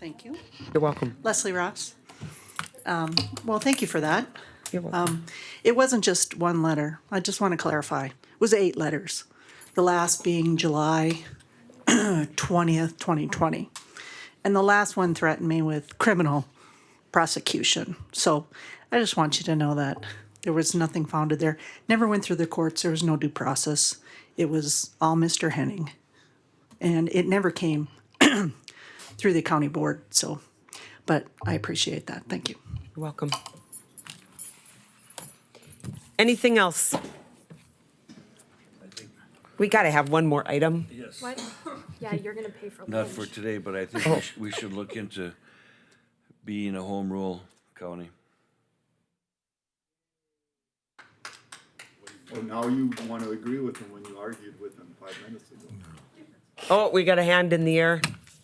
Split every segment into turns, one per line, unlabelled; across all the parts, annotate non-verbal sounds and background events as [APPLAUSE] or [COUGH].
Thank you.
You're welcome.
Leslie Ross. Um, Well, thank you for that.
You're welcome.
It wasn't just one letter. I just want to clarify. It was eight letters, the last being July [CLEARS THROAT] 20th, 2020. And the last one threatened me with criminal prosecution. So I just want you to know that there was nothing founded there. Never went through the courts. There was no due process. It was all Mr. Henning. And it never came [CLEARS THROAT] through the county board. So, but I appreciate that. Thank you.
You're welcome. Anything else? We got to have one more item.
Yes,
What? [LAUGHS] Yeah, you're gonna pay for lunch.
not for today, but I think we should, we should look into being a home rule county.
Well, now you want to agree with them when you argued with them five minutes ago.
Oh, we got a hand in the
[CLEARS THROAT]
air.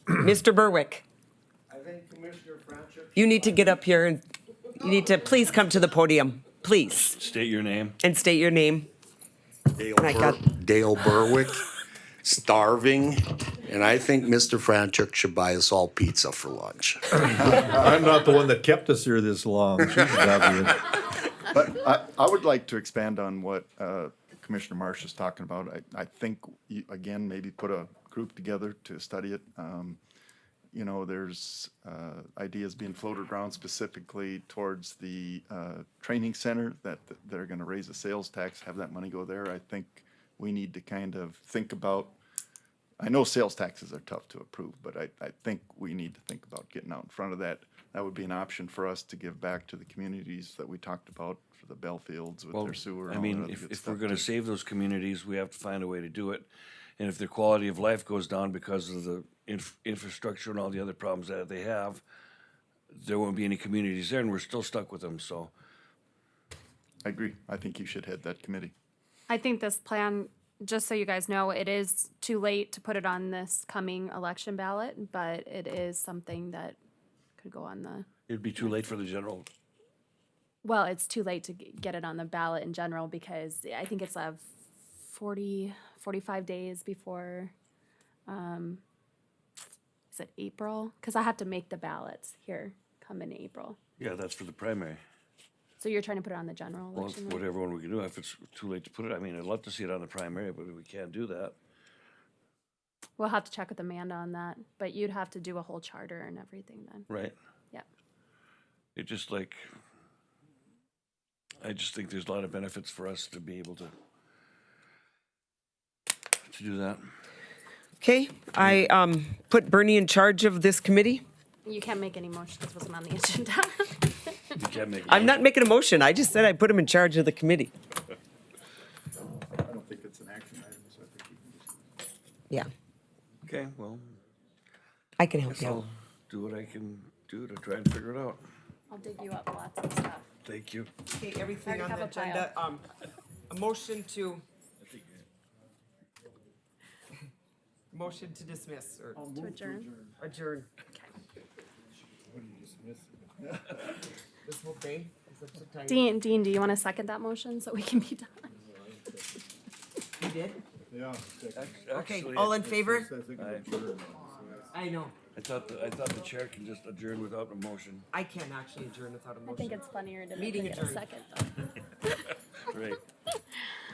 Mr. Berwick,
I think Commissioner Franchek
you need to get up here and you need to please come to the podium, please,
State your name.
and state your name.
Dale,
I
Bur-
got-
Dale Berwick starving, and I think Mr. Franchuk should buy us all pizza for lunch.
I'm not the one that kept us here this long. She's obvious.
But I, I would like to expand on what uh, Commissioner Marsh is talking about. I, I think, you- again, maybe put a group together to study it. Um, You know, there's uh, ideas being floated around specifically towards the uh, training center that th- they're going to raise the sales tax, have that money go there. I think we need to kind of think about, I know sales taxes are tough to approve, but I, I think we need to think about getting out in front of that. That would be an option for us to give back to the communities that we talked about for the Bellfields with their sewer.
I
and all that
mean,
other
if,
good
if
stuff,
we're gonna
too.
save those communities, we have to find a way to do it. And if their quality of life goes down because of the inf- infrastructure and all the other problems that they have, there won't be any communities there and we're still stuck with them, so.
I agree. I think you should head that committee.
I think this plan, just so you guys know, it is too late to put it on this coming election ballot, but it is something that could go on the,
It'd be too late for the general.
well, it's too late to g- get it on the ballot in general because I think it's a 40, 45 days before, um, is it April? Because I have to make the ballots here come in April.
Yeah, that's for the primary.
So you're trying to put it on the general
Well,
election? right?
whatever one we can do, if it's too late to put it, I mean, I'd love to see it on the primary, but we can't do that.
We'll have to check with Amanda on that, but you'd have to do a whole charter and everything then.
Right.
Yep.
It just like, I just think there's a lot of benefits for us to be able to to do that.
Okay, I um, put Bernie in charge of this committee.
You can't make any motions because it wasn't on the [LAUGHS] agenda.
You can't make.
I'm not making a motion. I just said I put him in charge of the committee.
I don't think it's an action item, so I think we can just.
Yeah,
Okay, well,
I can help you out.
I'll do what I can do to try and figure it out.
I'll dig you up lots of stuff.
Thank you.
Okay, everything
Already
on the
have a
agenda, um, a motion to. [LAUGHS] Motion to dismiss or
To adjourn.
adjourn. [LAUGHS] This whole thing? Is that what time
Dean, Dean, do you want to second that motion so we can be done?
you did? Okay,
Actually,
all
I-
in favor?
Yeah.
I know,
I thought, the- I thought the chair can just adjourn without a
[LAUGHS]
motion.
I can't actually adjourn without a
I think
motion.
it's funnier to
Meeting
make it a
adjourned.
second. though.
Right.